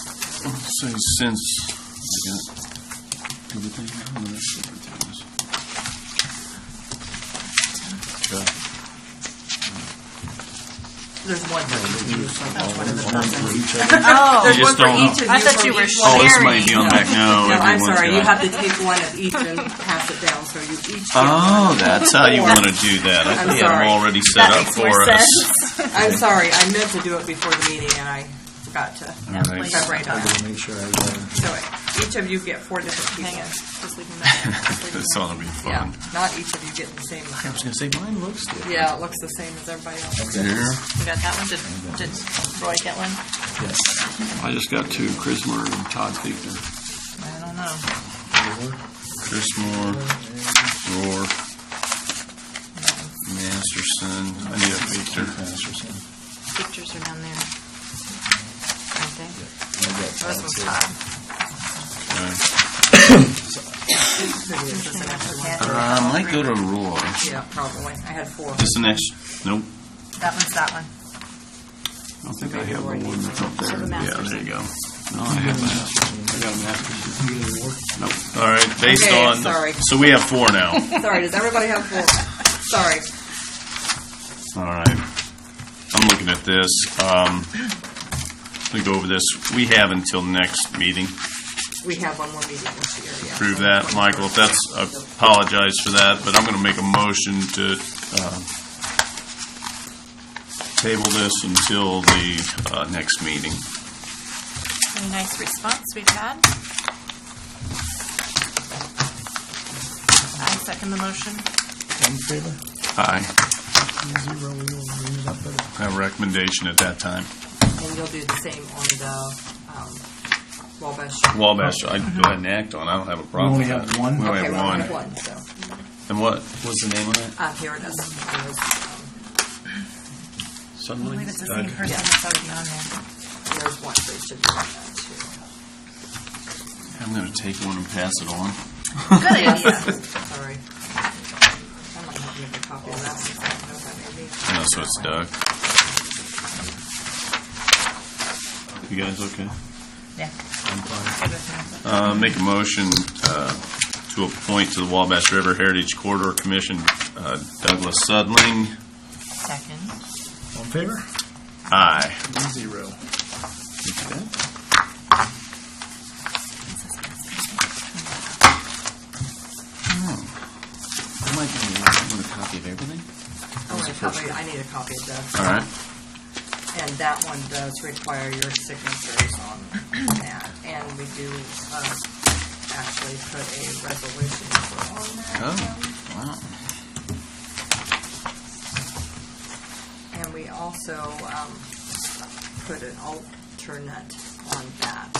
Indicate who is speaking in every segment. Speaker 1: Say since, I got everything, I don't know that's what it is.
Speaker 2: There's one for each of you, so that's one of the buttons.
Speaker 3: Oh,
Speaker 2: There's
Speaker 1: You
Speaker 2: one
Speaker 1: just
Speaker 2: for
Speaker 1: don't know.
Speaker 2: each of you.
Speaker 3: I thought
Speaker 2: from
Speaker 3: you were
Speaker 2: each
Speaker 3: sharing.
Speaker 1: Oh,
Speaker 2: one.
Speaker 1: this might be on back now.
Speaker 2: No, I'm
Speaker 1: everyone's
Speaker 2: sorry,
Speaker 1: got-
Speaker 2: you have to take one of each and pass it down, so you each. get
Speaker 1: Oh,
Speaker 2: one.
Speaker 1: that's how you want to do that. I
Speaker 2: I'm
Speaker 1: think I'm
Speaker 2: sorry.
Speaker 1: already set
Speaker 3: that
Speaker 1: up
Speaker 3: makes more
Speaker 1: for us.
Speaker 3: sense.
Speaker 2: I'm sorry, I meant to do it before the meeting and I forgot to
Speaker 1: All right.
Speaker 2: separate them.
Speaker 4: Make sure I uh, learn.
Speaker 2: So each of you get four different
Speaker 3: Hang on,
Speaker 2: pieces.
Speaker 3: just leave them there.
Speaker 1: That's all it'll be
Speaker 2: Yeah,
Speaker 1: fun.
Speaker 2: not each of you get the same.
Speaker 4: I was gonna say, mine looks different.
Speaker 2: Yeah, it looks the same as everybody else.
Speaker 1: Here,
Speaker 3: We got that one, did, did Roy get one?
Speaker 4: Yes.
Speaker 5: I just got two, Chris Murray and Todd Fichter.
Speaker 2: I don't know.
Speaker 1: Chris Moore, Roar, Masterson, I need a picture.
Speaker 3: Pictures are down there. Aren't they? Those ones
Speaker 4: Four.
Speaker 3: are-
Speaker 1: Uh, I might go to Roar.
Speaker 2: Yeah, probably. I had four.
Speaker 1: This the next, nope,
Speaker 3: That one's that one.
Speaker 5: I don't think I have the one that's up
Speaker 3: So
Speaker 5: there.
Speaker 3: the
Speaker 1: yeah,
Speaker 3: Masters.
Speaker 1: there you go.
Speaker 5: No, I have that. I got a master's. Nope.
Speaker 1: All right, based
Speaker 2: Okay,
Speaker 1: on,
Speaker 2: sorry.
Speaker 1: so we have four now.
Speaker 2: Sorry, does everybody have four? Sorry.
Speaker 1: All right. I'm looking at this. Um, we go over this. We have until next meeting.
Speaker 2: We have one more meeting this year, yeah.
Speaker 1: Prove that, Michael. If that's, I apologize for that, but I'm going to make a motion to uh, table this until the uh, next meeting.
Speaker 3: Any nice response we've had? I second the motion.
Speaker 4: In favor?
Speaker 1: Aye.
Speaker 4: Zero, we will bring it up at a-
Speaker 1: Have a recommendation at that time.
Speaker 2: And you'll do the same on the um, Wabash.
Speaker 1: Oh, Wabash, I'd go ahead and act on. I don't have a problem
Speaker 4: We
Speaker 1: with
Speaker 4: only
Speaker 1: that.
Speaker 4: have one?
Speaker 1: We only
Speaker 2: Okay,
Speaker 1: have
Speaker 2: we only have
Speaker 1: one.
Speaker 2: one, so,
Speaker 1: And what, what's the name of it?
Speaker 2: uh, here it is. It was, um,
Speaker 3: I believe it's the same person that's already on there.
Speaker 2: There's one for each of you. on that,
Speaker 1: I'm going to take one and pass it on.
Speaker 3: Good idea.
Speaker 2: too. Sorry. I might have to make a copy of that one, so I don't know if I may be-
Speaker 1: No, so it's Doug. You guys okay?
Speaker 3: Yeah.
Speaker 1: Uh, make a motion, uh, to appoint to the Wabash River Heritage Corridor Commission, uh, Douglas Sudling.
Speaker 3: Second.
Speaker 4: All in favor?
Speaker 1: Aye.
Speaker 4: Zero.
Speaker 1: want a copy of everything?
Speaker 2: Oh, I want a copy, I need a copy of that.
Speaker 1: All right.
Speaker 2: And that one does require your signatures on that. And we do uh, actually put a resolution on that.
Speaker 1: Oh, wow.
Speaker 2: And we also um, put an alternate on that.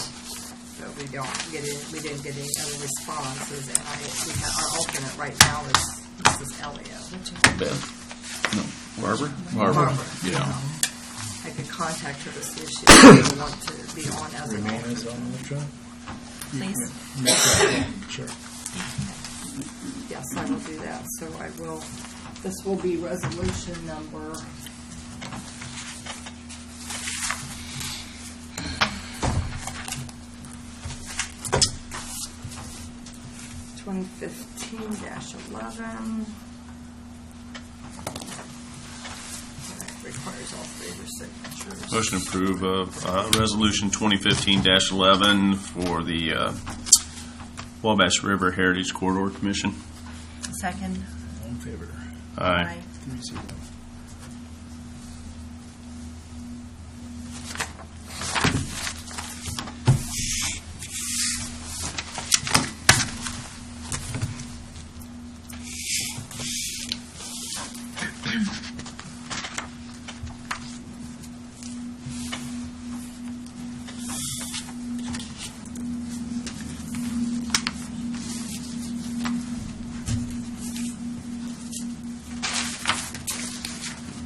Speaker 2: But we don't get it, we didn't get any other responses. And I, we have, our alternate right now is Mrs. Elliott.
Speaker 1: Beth? No, Barbara?
Speaker 2: Barbara.
Speaker 1: Yeah.
Speaker 2: I could contact her to see if she would want to be on as an
Speaker 4: Remain as
Speaker 2: alternate.
Speaker 4: on the job?
Speaker 3: Please.
Speaker 4: Sure.
Speaker 2: Yes, I will do that, so I will, this will be resolution number. Twenty fifteen dash eleven. Requires all three of your signatures.
Speaker 1: Motion to approve of, uh, resolution twenty fifteen eleven for the, uh, Wabash River Heritage Corridor Commission.
Speaker 3: Second.
Speaker 4: All in favor?
Speaker 1: Aye.
Speaker 4: Three zero.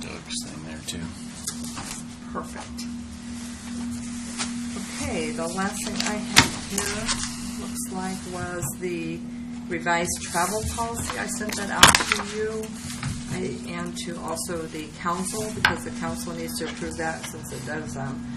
Speaker 1: Doug's thing there too.
Speaker 2: Perfect. Okay, the last thing I have here, looks like, was the revised travel policy. I sent that out to you I- and to also the council, because the council needs to approve that since it does um,